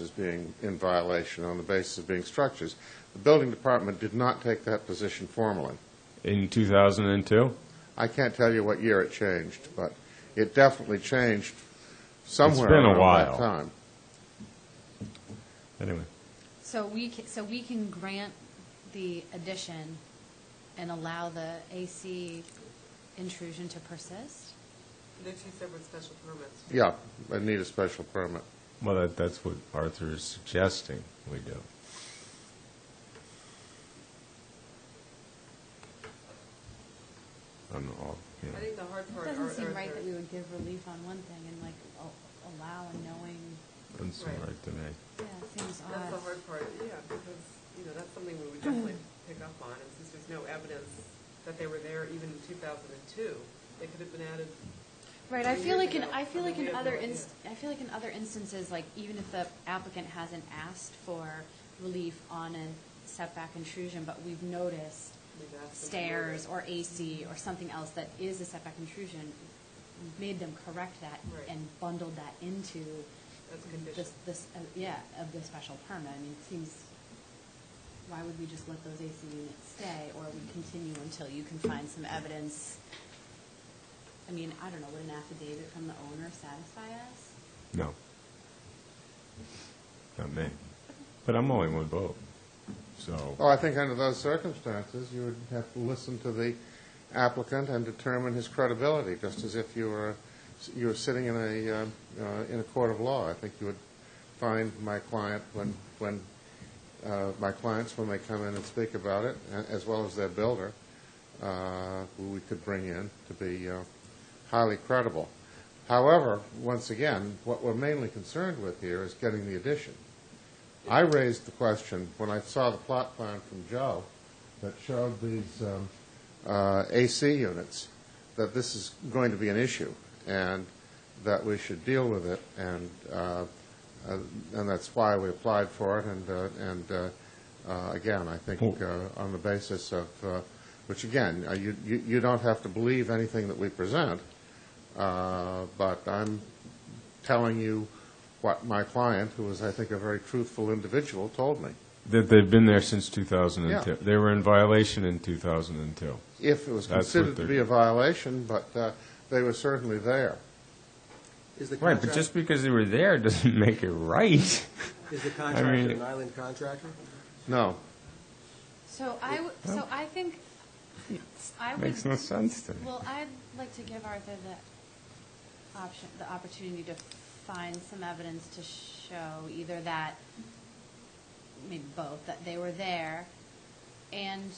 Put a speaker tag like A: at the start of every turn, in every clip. A: as being in violation on the basis of being structures. The building department did not take that position formally.
B: in 2002?
A: I can't tell you what year it changed, but it definitely changed somewhere
B: been a
A: around
B: while.
A: that time.
B: Anyway,
C: So we, ca- so we can grant the addition and allow the AC intrusion to persist?
D: They're two separate special permits.
A: Yeah, I need a special permit.
B: well, that, that's what Arthur is suggesting we do. I'm all, you know.
D: I think the hard
C: It
D: part are.
C: doesn't seem
D: are
C: right
D: the-
C: that we would give relief on one thing and like al- allow a knowing,
B: doesn't seem
D: Right.
B: right to me.
C: yeah, it seems odd.
D: That's the hard part, yeah, because, you know, that's something we would definitely pick up on, and since there's no evidence that they were there even in 2002, they could have been added.
C: Right, I
D: three
C: feel
D: years
C: like in,
D: ago.
C: I feel like
D: mean,
C: in
D: we have
C: other,
D: no idea.
C: inst- I feel like in other instances, like even if the applicant hasn't asked for relief on a setback intrusion, but we've noticed
D: We've asked them to do
C: stairs
D: it.
C: or AC or something else that is a setback intrusion, we've made them correct that
D: Right.
C: and bundled that into
D: That's a condition.
C: this, this, uh, yeah, of the special permit. I mean, it seems, why would we just let those AC units stay or we continue until you can find some evidence? I mean, I don't know, would an affidavit from the owner satisfy us?
B: No. Not me. But I'm only one vote,
A: Well,
B: so.
A: Oh, I think under those circumstances, you would have to listen to the applicant and determine his credibility, just as if you were, you were sitting in a, uh, uh, in a court of law. I think you would find my client when, when, uh, my clients, when they come in and speak about it, a- as well as their builder, uh, who we could bring in to be uh, highly credible. However, once again, what we're mainly concerned with here is getting the addition. I raised the question when I saw the plot plan from Joe that showed these um, uh, AC units, that this is going to be an issue and that we should deal with it. And, uh, uh, and that's why we applied for it. And, uh, and uh, uh, again, I think uh, on the basis of, uh, which again, uh, you, you you don't have to believe anything that we present, uh, but I'm telling you what my client, who was, I think, a very truthful individual, told me.
B: That they've been there since 2002.
A: Yeah.
B: They were in violation in 2002.
A: If it was
B: That's what
A: considered to
B: they're-
A: be a violation, but uh, they were certainly there.
E: Is the
B: Right, but just
E: contract-
B: because they were there doesn't make it right.
E: Is the
B: mean-
E: contractor an island contractor?
A: No,
C: So I, w- so I think, I would.
B: Makes no sense to me.
C: Well, I'd like to give Arthur the option, the opportunity to find some evidence to show either that, maybe both, that they were there and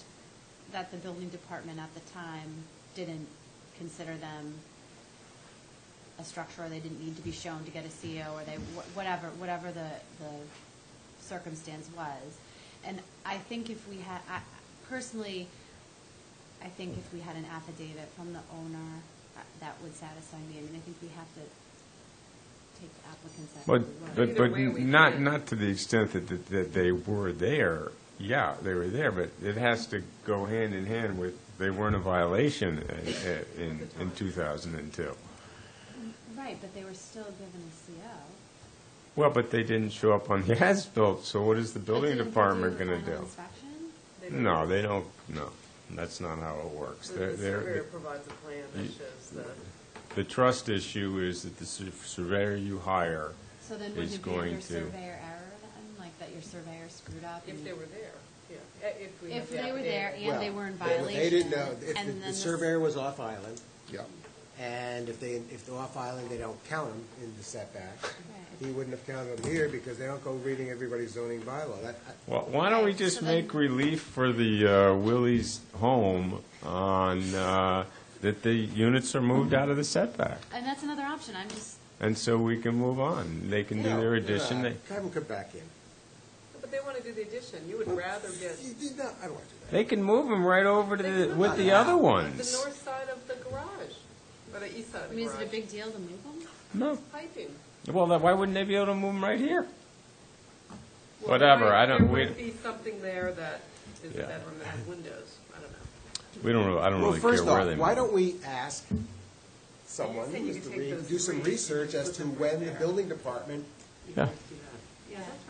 C: that the building department at the time didn't consider them a structure, or they didn't need to be shown to get a CO, or they, wh- whatever, whatever the, the circumstance was. And I think if we had, I, personally, I think if we had an affidavit from the owner, uh, that would satisfy me. I mean, I think we have to take the applicants at
B: But, but,
C: their word.
D: Either
B: but
D: way, we
B: not,
D: can't.
B: not to the extent that, that- that they were there. Yeah, they were there, but it has to go hand in hand with, they weren't a violation in- in, in 2002.
C: Right, but they were still given a CO.
B: Well, but they didn't show up on the as-built, so what is the building
C: But didn't they do
B: department
C: the
B: going to
C: final
B: do?
C: inspection?
D: They don't-
B: No, they don't, no, that's not how it works.
D: The
B: They're-
D: the surveyor
B: they're-
D: provides a plan that
B: You-
D: shows the,
B: The trust issue is that the sur- surveyor you hire,
C: So then
B: Is
C: wouldn't it be under
B: going to-
C: surveyor error then, like that your surveyor screwed up?
D: if
C: and-
D: they were there, yeah, Eh, if we have
C: If
D: the
C: they were there
D: affidavit.
C: and they
E: Well,
C: were in
E: they-
C: violation.
E: They didn't know,
C: and
E: if
C: then
E: the- the
C: this-
E: surveyor was off island,
A: yeah.
E: and if they, if they're off island, they don't count them in the setback. He
C: Right.
E: wouldn't have counted them here because they don't go reading everybody's zoning bylaw. That, I-
B: Well, why don't we
C: Right,
B: just
C: so then-
B: make relief for the uh, Willie's home on, uh, that the units are moved out of the setback?
C: And that's another option, I'm just,
B: And so we can move on. They can do
E: no,
B: their
E: no,
B: addition. They,
E: Have them come back in.
D: But they want to do the addition, you would rather get
E: You did not, I don't want to do that.
B: they can move them right over to
D: They
B: the,
D: can
B: with
D: move
B: the
D: them.
B: other
D: the
B: ones.
D: north side of the garage, or the east side
C: I
D: of the
C: mean, is it a
D: garage.
C: big deal to move them?
B: No,
D: Piping.
B: well, then why wouldn't they be able to move them right here?
D: Well,
B: Whatever,
D: there
B: I
D: might-
B: don't- we-
D: There might be something there that is a
B: Yeah.
D: bedroom that has windows, I don't know.
B: We don't, really- I don't
E: Well,
B: really care where they
E: first
B: move
E: off, why
B: them.
E: don't we ask someone,
D: You said you
E: Mr.
D: could take
E: Reed,
D: those
E: do some
D: three,
E: research as
D: put
E: to
D: them right
E: when the
D: there.
E: building department
B: Yeah.
D: You
C: Yeah, that's right.